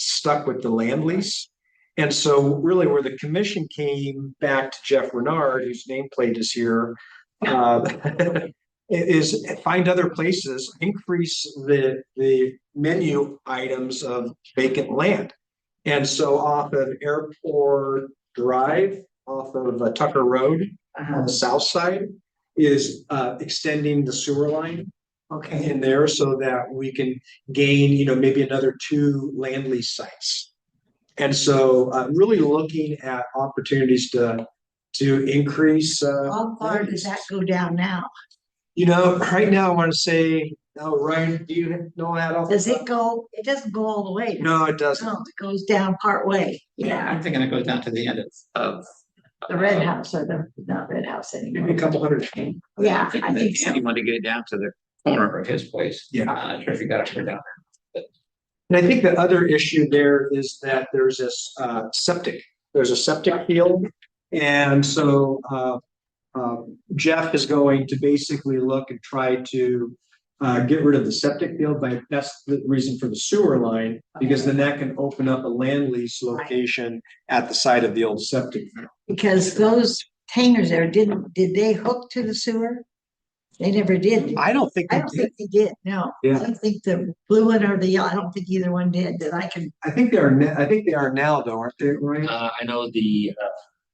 stuck with the land lease. And so really where the commission came back to Jeff Renard, whose nameplate is here, uh, i- is find other places, increase the, the menu items of vacant land. And so off of Airport Drive, off of uh, Tucker Road on Uh-huh. the south side is, uh, extending the sewer line Okay, in there so that we can gain, you know, maybe another two land lease sites. And so uh really looking at opportunities to to increase uh, how far does that go down now? you know, right now I want to say, oh, Ryan, do you know that? off the Does it Oh. top? go, it doesn't go all the way? No, it doesn't. No, it goes down part way. Yeah, I'm thinking it goes down to the end of- of. The red house or the, not red house anymore. Maybe a couple hundred. Yeah, thinking I that think so. Andy wanted to get it down to the corner of his place. Yeah. I'm not sure if you got it figured out. And I think the other issue there is that there's this uh septic, there's a septic field. And so uh um, Jeff is going to basically look and try to uh get rid of the septic field, but that's the reason for the sewer line. Because then that can open up a land lease location at the side of the old septic. field. Because those hangers there didn't, did they hook to the sewer? They never did. I don't think, I don't think they did, no. Yeah. I don't think the blue one or the yellow, I don't think either one did that I can, I think they are, na- I think they are now though, aren't they, Ryan? Uh, I know the uh,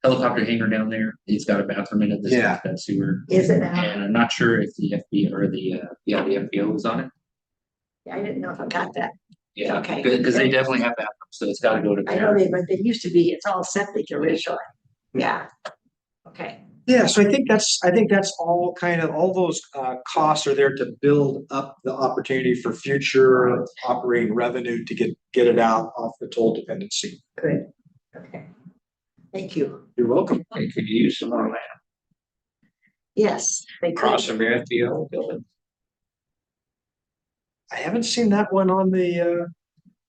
helicopter hangar down there, he's got a bathroom in it, this Yeah. is that sewer. is it now? And I'm not sure if the FB or the, uh, yeah, the FBO was on it. I didn't know if I got that. Yeah, Okay. because they definitely have bathrooms, so it's gotta go to I know there. they, but they used to be, it's all septic originally. Yeah. Okay. Yeah, so I think that's, I think that's all kind of, all those uh costs are there to build up the opportunity for future operating revenue to get, get it out off the toll dependency. Good. Okay. Thank you. You're welcome. They could use some more land Yes, they could. across from your FBO building. I haven't seen that one on the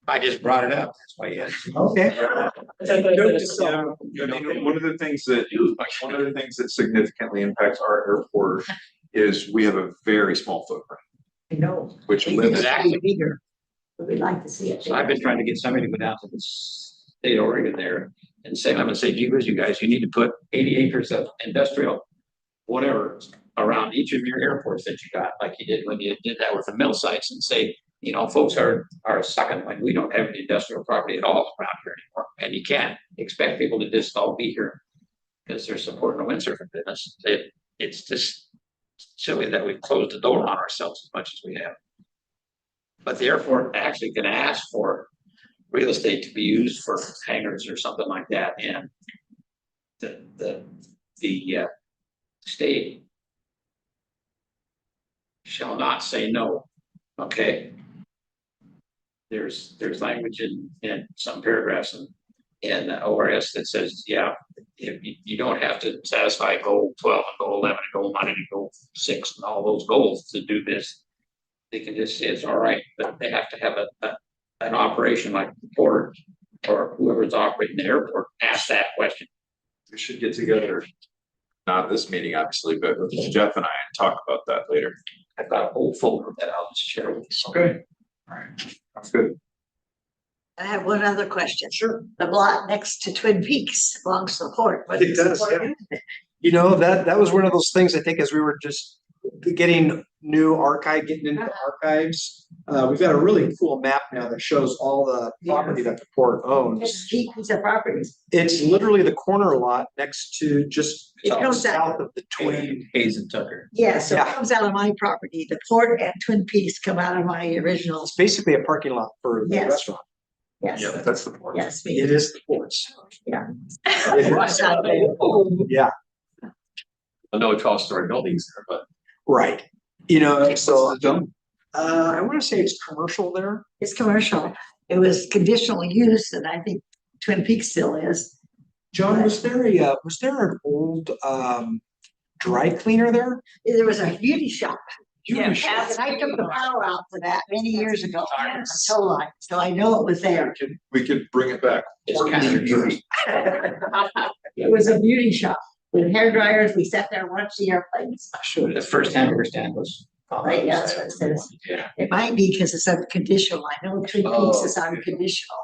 I just brought it up, that's why you had. uh, okay. Note to self. Yeah, I mean, one of the things that, one of the things that significantly impacts our airport is we have a very small footprint, I know. which limits. Exactly. Bigger. But we'd like to see it. So I've been trying to get somebody to go down to the state of Oregon there and say, I'm gonna say, geez, you guys, you need to put eighty acres of industrial. Whatever, around each of your airports that you got, like you did when you did that with the mill sites and say, you know, folks are, are sucking, like, we don't have any industrial property at all around here anymore. And you can't expect people to just all be here. Cause they're supporting the windsurfing business. It, it's just silly that we've closed the door on ourselves as much as we have. But the airport actually can ask for real estate to be used for hangars or something like that, and the, the, the, uh, state shall not say no, okay? There's, there's language in, in some paragraphs in, in the ORS that says, yeah, if you, you don't have to satisfy goal twelve and goal eleven and goal nine and goal six and all those goals to do this. They can just say it's all right, but they have to have a, a, an operation like the port or whoever's operating the airport, ask that question. We should get together, not at this meeting, obviously, but with Jeff and I and talk about that later. I've got a whole folder that I'll just share with you. Okay. Alright, that's good. I have one other question. Sure. The lot next to Twin Peaks belongs to the port. but It does, it's- You know, that, that was one of those things, I think, as we were just getting new archive, getting into archives. Uh, we've got a really cool map now that shows all the property that the port owns. It's Peaks of properties. It's literally the corner lot next to just It goes that- south of the twin. Hayes and Tucker. Yeah, so it Yeah. comes out of my property. The port and Twin Peaks come out of my original. It's basically a parking lot for the Yes. restaurant. Yes, Yeah, that's the point. yes. me. It is the ports. It's not there. Yeah, I know twelve story buildings there, but. right. You know, so, the zone? uh, I wanna say it's commercial there. It's commercial. It was conditional use and I think Twin Peaks still is. John, was there a, uh, was there an old, um, dry cleaner there? There was a beauty shop. Yeah. And I took the power out for that many years ago. So like, so I know it was there. We could bring it back. It's kind of beauty. It was a beauty shop with hair dryers. We sat there and watched the airplanes. Sure, the first hamburger stand was. Right, yeah, that's what it says. Yeah. It might be because it's unconditional. I know Twin Peaks is unconditional.